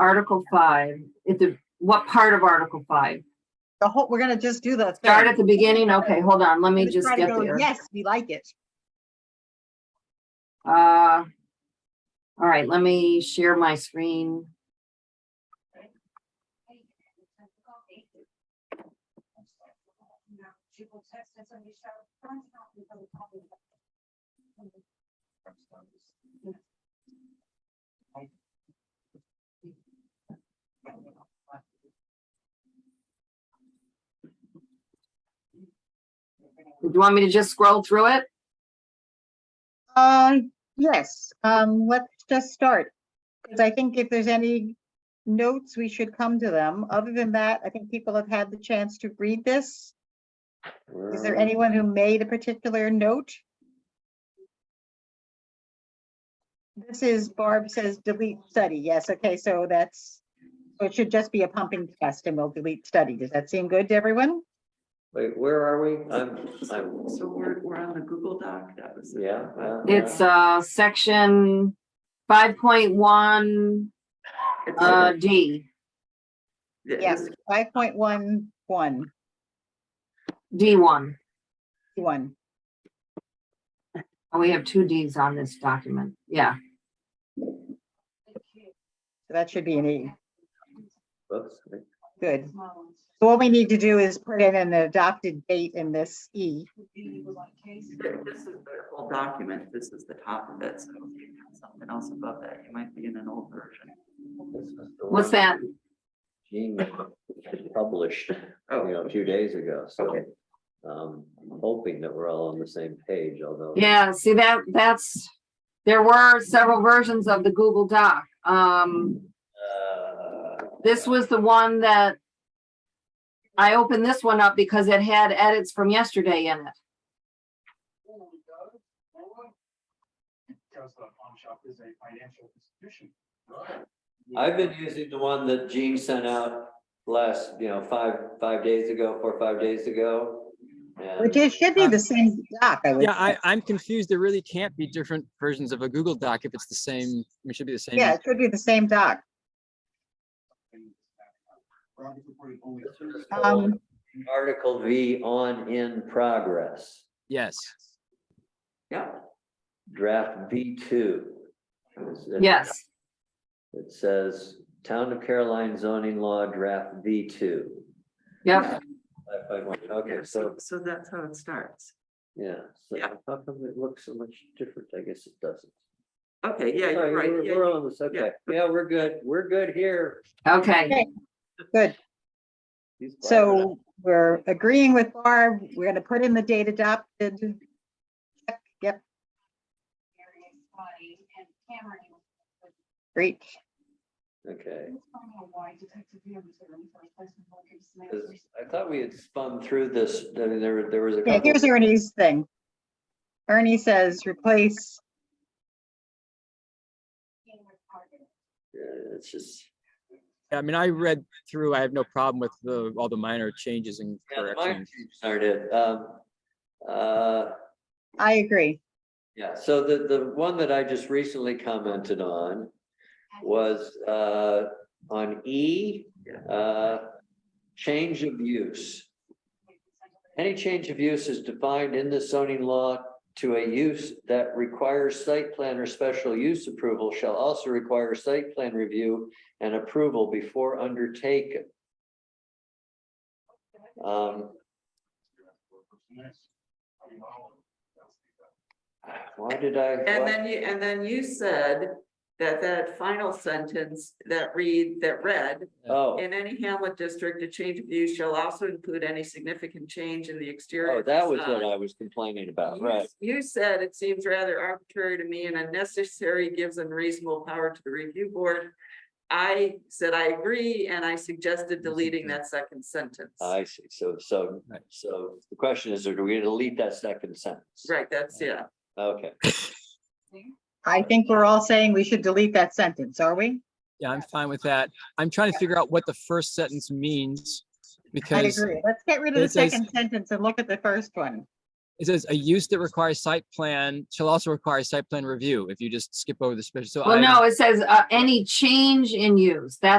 Article five, it's a, what part of Article five? The whole, we're gonna just do the. thing. Start at the beginning? Okay, hold on, let me Let's just try to get go, there. Yes, we like it. Uh, all right, let me share my screen. Do you want me to just scroll through it? Uh, yes, um, let's just start. Because I think if there's any notes, we should come to them. Other than that, I think people have had the chance to read this. Is there anyone who made a particular note? This is Barb says delete study. Yes, okay, so that's, so it should just be a pumping test and we'll delete study. Does that seem good to everyone? Wait, where are we? I'm, I'm, So we're, we're on the Google Doc, that was. yeah. uh, It's, uh, section five point one, It's- uh, D. it- Yes, five point one, one, D1. one. And Oh, we have two Ds on this document. Yeah. So That should be an E. whoops, Good. So what we need to do is put in an adopted date in this E. This is their whole document, this is the top of it, so if you have something else above that, you might be in an old version. this is the What's one that? Gene published, you know, a few days ago, so. Oh. Okay. Um, I'm hoping that we're all on the same page, although. Yeah, see that, that's, there were several versions of the Google Doc. Um, Uh, this was the one that I opened this one up because it had edits from yesterday in it. Because the pawn shop is a financial institution. I've been using the one that Gene sent out last, you know, five, five days ago, four, or five days ago. and- Which is, should be the same doc, I would. Yeah, I, think. I'm confused. There really can't be different versions of a Google Doc if it's the same, it should be the same. Yeah, it should be the same doc. Rob is reporting only This two- is Um, called Article V on in progress, Yes. Yeah, draft V two. Yes. It says Town of Caroline zoning law draft V two. Yep. Okay, so, so, so that's how it starts. yeah, so Yeah. how come it looks so much different? I guess it doesn't. Okay, yeah, Sorry, you're right, we're- yeah, We're on this, okay. Yeah, we're good. We're good here. Okay. Good. He's black. So we're agreeing with Barb. We're gonna put in the date adopted. Yep. Great. Okay. This- I thought we had spun through this, I mean, there, there was a Yeah, couple. here's Ernie's thing. Ernie says replace, Yeah, It's just, I mean, I read through, I have no problem with the, all the minor changes and yeah, the minor corrections. changes aren't it. Um, uh, I agree. Yeah, so the, the one that I just recently commented on was, uh, on E, uh, change of use. Any change of use is defined in the zoning law to a use that requires site plan or special use approval shall also require site plan review and approval before undertaken. Um, why did I? And why- then you, and then you said that that final sentence that read, that read, Oh. in any hamlet district, a change of use shall also include any significant change in the exterior. Oh, that was what facade. I was complaining about, uh, You- right? You said it seems rather arbitrary to me and unnecessary, gives unreasonable power to the review board. I said I agree, and I suggested deleting that second sentence. I see. So, so, Right. so the question is, do we delete that second sentence? Right, that's, yeah, Okay, I think we're all saying we should delete that sentence, are we? Yeah, I'm fine with that. I'm trying to figure out what the first sentence means I because agree. Let's get rid of the it says- second sentence and look at the first one. It says a use that requires site plan shall also require site plan review if you just skip over the special. so Well, I- no, it says, uh, any change in use. That's